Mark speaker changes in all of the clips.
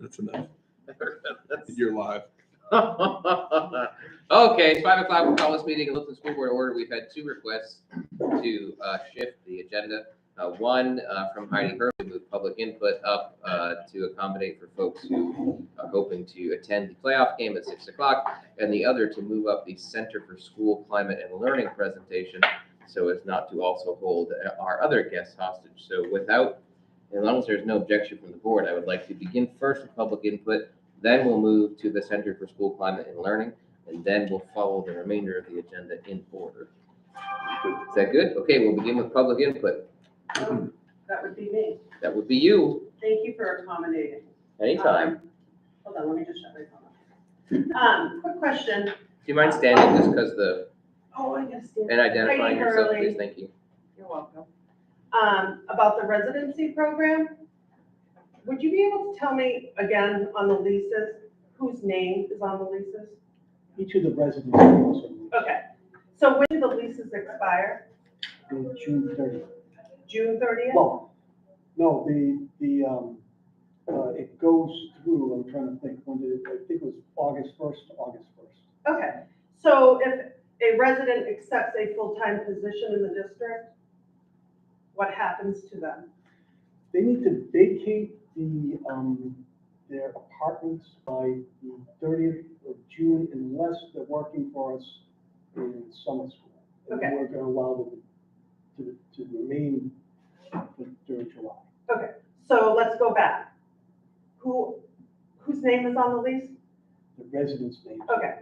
Speaker 1: That's enough. You're live.
Speaker 2: Okay, it's five o'clock. We'll call this meeting and look the school board order. We've had two requests to uh, shift the agenda. Uh, One uh, from Heidi Herb, to move public input up uh, to accommodate for folks who are hoping to attend the playoff game at six o'clock. And the other to move up the Center for School Climate and Learning presentation so as not to also hold our other guests hostage. So without, as long as there's no objection from the board, I would like to begin first with public input. Then we'll move to the Center for School Climate and Learning and then we'll follow the remainder of the agenda in order. Is that good? Okay, we'll begin with public input.
Speaker 3: Um, That would be me.
Speaker 2: That would be you,
Speaker 3: Thank you for accommodating.
Speaker 2: anytime.
Speaker 3: Um, Hold on, let me just shut my phone off. Um, quick question.
Speaker 2: Do you mind standing just because the,
Speaker 3: Oh, I guess. yeah.
Speaker 2: and identifying
Speaker 3: Heidi
Speaker 2: yourself,
Speaker 3: Hurley.
Speaker 2: please, thank you.
Speaker 3: You're welcome. Um, about the residency program, would you be able to tell me again on the leases, whose name is on the leases?
Speaker 4: Each of the residents also
Speaker 3: Okay, so when do the leases expire?
Speaker 4: on June thirtieth.
Speaker 3: June thirtieth?
Speaker 4: Well, no, the, the, um, uh, it goes through, I'm trying to think, when did, it- I think it was August first to August first.
Speaker 3: Okay, so if a resident accepts a full-time position in the district, what happens to them?
Speaker 4: They need to vacate the, um, their apartments by the thirtieth of June unless they're working for us in summer school. And
Speaker 3: Okay.
Speaker 4: We're gonna allow them to, to remain during July.
Speaker 3: So let's go back. Who, whose name is on the lease?
Speaker 4: The residents' names.
Speaker 3: Okay.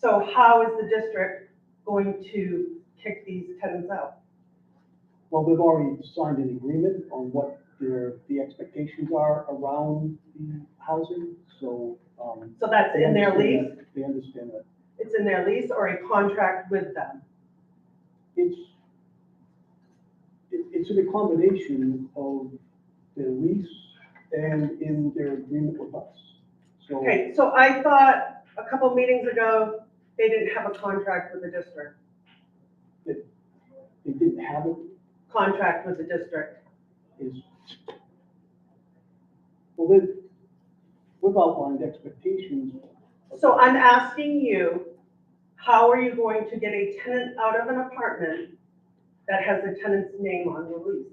Speaker 3: So how is the district going to kick these tenants out?
Speaker 4: Well, they've already signed an agreement on what their, the expectations are around the housing, so, um.
Speaker 3: So that's in their
Speaker 4: they
Speaker 3: lease,
Speaker 4: understand that- They understand that.
Speaker 3: it's in their lease or a contract with them?
Speaker 4: It's, it, it's an accommodation of their lease and in their agreement with us. So,
Speaker 3: Okay, so I thought a couple meetings ago, they didn't have a contract with the district,
Speaker 4: they didn't have it,
Speaker 3: contract with the district.
Speaker 4: is, well, they, we've outlined expectations.
Speaker 3: So I'm asking you, how are you going to get a tenant out of an apartment that has the tenant's name on the lease?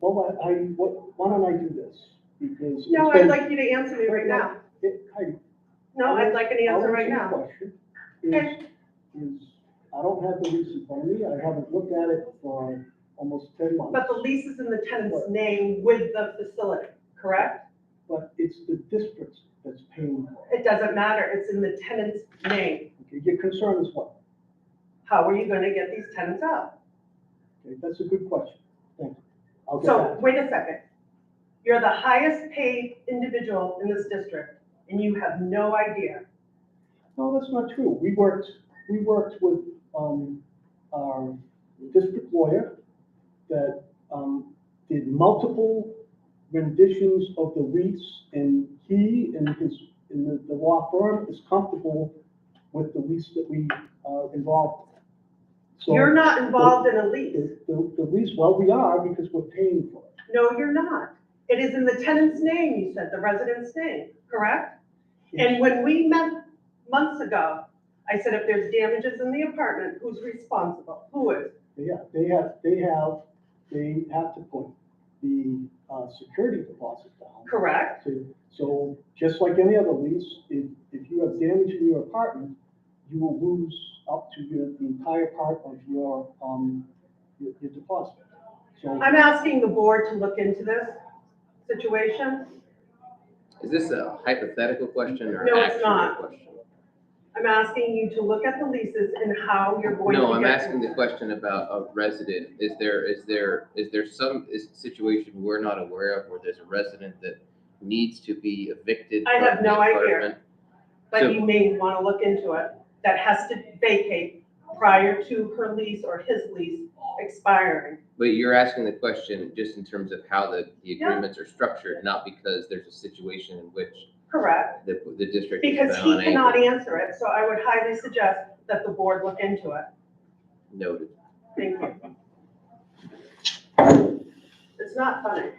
Speaker 4: Well, I, I, what, why don't I do this? Because. it's
Speaker 3: No, I'd
Speaker 4: been-
Speaker 3: like you to answer me right now.
Speaker 4: It- Heidi,
Speaker 3: No, I'd like an answer right
Speaker 4: I'll
Speaker 3: now.
Speaker 4: answer your question. Is, is, I don't have the lease in front of me, I haven't looked at it for almost ten months.
Speaker 3: But the lease is in the tenant's name with the facility, correct?
Speaker 4: But it's the district that's paying for it.
Speaker 3: It doesn't matter, it's in the tenant's name.
Speaker 4: Okay, Your concern is what?
Speaker 3: How are you gonna get these tenants out?
Speaker 4: Okay, that's a good question, thank you. I'll get
Speaker 3: So,
Speaker 4: back.
Speaker 3: wait a second. You're the highest paid individual in this district, and you have no idea.
Speaker 4: No, that's not true, we worked, we worked with, um, our district lawyer that, um, did multiple renditions of the lease, and he and his, and the, the law firm is comfortable with the lease that we, uh, involved. So
Speaker 3: You're not involved in a lease.
Speaker 4: The, the, the lease, well, we are, because we're paying for it.
Speaker 3: No, you're not. It is in the tenant's name, you said, the resident's name, correct? And when we met months ago, I said, if there's damages in the apartment, who's responsible? Who is?
Speaker 4: Yeah, they have, they have, they have to put the, uh, security deposit down.
Speaker 3: Correct?
Speaker 4: So- So just like any other lease, if, if you have damage in your apartment, you will lose up to your, the entire part of your, um, your your deposit. So
Speaker 3: I'm asking the board to look into this situation.
Speaker 2: Is this a hypothetical question or
Speaker 3: No,
Speaker 2: an
Speaker 3: it's
Speaker 2: actual
Speaker 3: not.
Speaker 2: question?
Speaker 3: I'm asking you to look at the leases and how you're going to get.
Speaker 2: No, I'm asking the question about a resident. Is there, is there, is there some is situation we're not aware of where there's a resident that needs to be evicted
Speaker 3: I
Speaker 2: from
Speaker 3: have
Speaker 2: the
Speaker 3: no idea.
Speaker 2: apartment?
Speaker 3: But you may want to look into it. That has to vacate prior to her lease or his lease expiring.
Speaker 2: But you're asking the question just in terms of how the, the
Speaker 3: Yeah.
Speaker 2: agreements are structured, not because there's a situation in which
Speaker 3: Correct?
Speaker 2: the, the district is
Speaker 3: Because he
Speaker 2: bound
Speaker 3: cannot
Speaker 2: and
Speaker 3: answer it, so I would highly suggest that the board look into it.
Speaker 2: noted.
Speaker 3: Thank you. It's not funny.